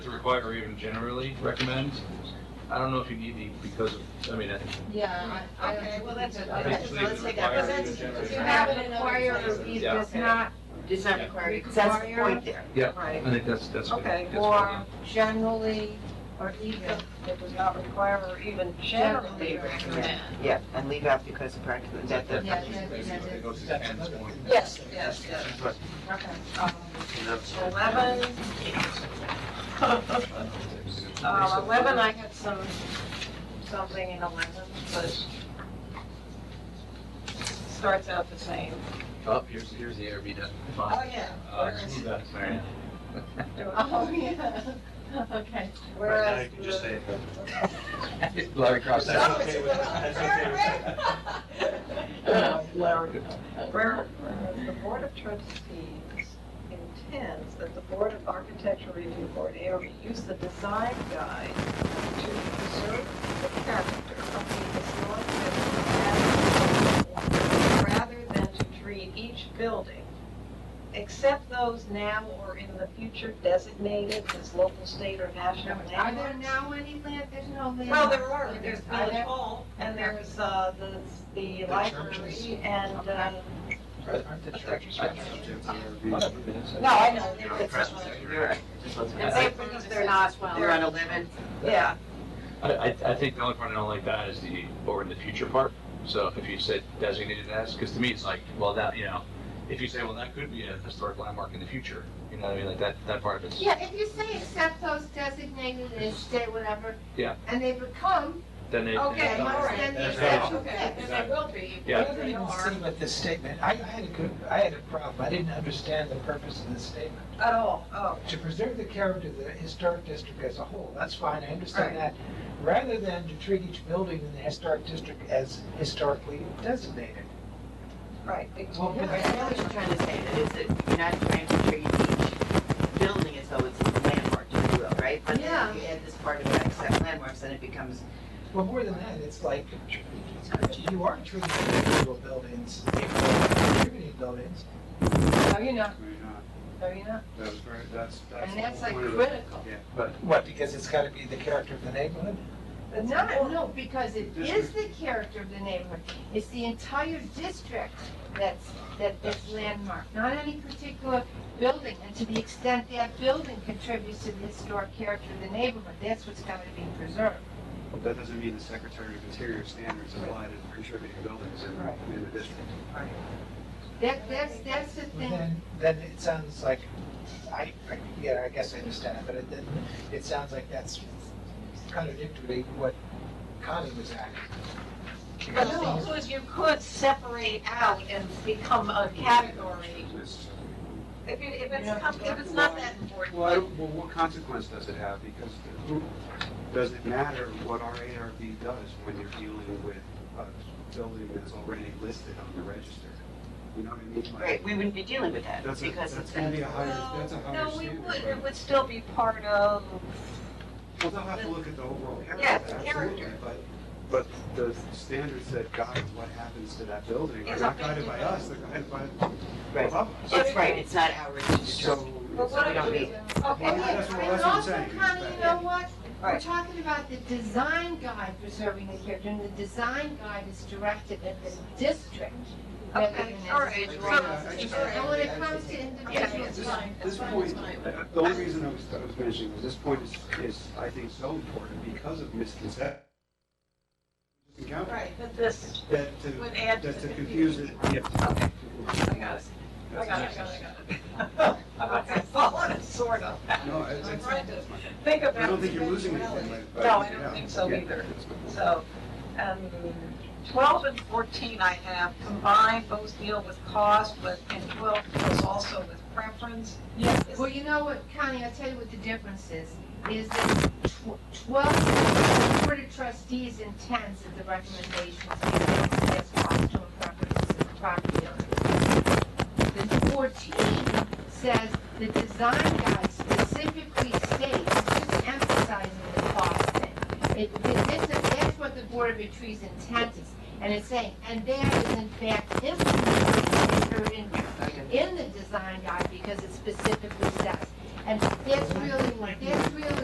to require or even generally recommend. I don't know if you need the, because, of I mean, I Yeah, I, I don't. Okay, well, that's think it. we Okay, need so Basically, to- let's take that. require That's- you to generate- You you have have it to in require other a places. review, Yeah. does not, Does not require, because that's the point there. Yeah. Right. I think that's, that's. good. Okay, That's or fine. generally, or even, It does not require or even generally Generally recommend. recommend. Yeah, and leave out because of practical, is that the? yeah, yeah, yeah, Basically, it yeah. goes to Ken's point. Yes, yes, yes. okay. Um, Eleven. Uh, eleven, I had some, something in eleven, but starts out the same. Oh, here's, here's the ARB done. Oh, Fine. yeah. Uh, smooth that, sorry. Oh, yeah. Okay. Whereas. You just say it. Larry Cross. That's that's- okay with- that's okay Where whereas Uh, the Board of Trustees intends that the Board of Architectural Review Board, ARB, use the design guide to preserve the character of the historic building rather than to treat each building, except those now or in the future designated as local, state, or national Are there landmarks. now any land, there's no land? Well, there are, there's Are Village there? Hall, and there's, uh, the, the churches. library, and, uh, Aren't the churches subject to ARB? no, I know. they're- You're right. And they because they're not, they're on eleven. Yeah, I, I, I think the only part I don't like that is the, or in the future part. So if you said designated as, because to me, it's like, well, that, you know, if you say, well, that could be a historic landmark in the future, you know what I mean? Like that, that part of it's. Yeah, if you say except those designated as state whatever. Yeah. And they become, Then it. okay, then it's- all right. then the That's exception okay, fits. and they will be. Yeah. I don't even see what this statement, I I had a good, I had a problem, I didn't understand the purpose of this statement. At all, oh, To preserve the character of the historic district as a whole, that's fine, I understand that. Rather than to treat each building in the historic district as historically designated. right. Well, I know what you're trying to say, that is that you're not trying to treat each building as though it's a landmark, if you will, right? But then if you add this part about except landmarks, then it becomes, Well, more than that, it's like, you are treating individual buildings, equal community buildings. No, you're not, Why not? no, you're not. That was very, that's, that's. And that's the like whole point of it. critical. But what, because it's gotta be the character of the neighborhood? It's No, not, no, because it is the character of the neighborhood. It's the entire district that's, that this landmark, not any particular building. And to the extent that building contributes to the historic character of the neighborhood, that's what's going to be preserved. That doesn't mean the Secretary of Interior standards apply to contributing buildings in, in the district. That, that's, that's the thing. Well, Then, then it sounds like, I, I- yeah, I guess I understand, but it, then, it sounds like that's contradictory what Connie was asking. Well, you could, you could separate out and become a category. It's- If you, if Yeah. it's, com- if it's not that important. Well, I don't- well, what consequence does it have? Because who, does it matter what our ARB does when you're dealing with a building that's already listed on the register? You know what I mean? Like, right, we wouldn't be dealing with that, That's a, because that's it's gonna going be a higher, Well, that's a higher No, we standard. would, it would still be part of, Well, they'll have to look at the overall character. Yeah, the absolutely, character. But, but the standards that guide what happens to that building are It's not up to guided you. by us, they're guided by Right. above us. It's right, it's not ours to So. determine. but what we if don't we? need- Okay, Well, and that's what- and that's what I'm also, saying, is Connie, that- you know what? We're Right. talking about the design guide preserving the character, and the design guide is directed at the district. rather Okay, than all at right, the so- district. all right. And when it comes to Yeah, individuals, it's This- fine, This it's fine, point, it's fine. uh, the only reason I was, I was mentioning was this point is, is, I think, so important because of misconception. Right, but this That to, would add to that to the confuse it, confusion. yeah. Okay, I got it. I got it, I got it, I got it. Okay, follow it, sort of. No, it's, I'm it's, trying to I think about. don't think the you're losing anything. eventuality. by- by No, I leaving it don't out. think so Yeah. either. So, um, twelve and fourteen I have combined, both deal with cost, but, and twelve deals also with preference. Yes. Well, you know what, Connie, I'll tell you what the difference is, is that tw- twelve Board of Trustees intends that the recommendations be made as cost to properties and property owners. The fourteen says the design guide specifically states, just emphasizing the cost thing. It, it- this is, that's what the Board of Trustees intent is, and it's saying, and that is in fact implemented in- in in the design guide because it specifically says. And that's really, that's really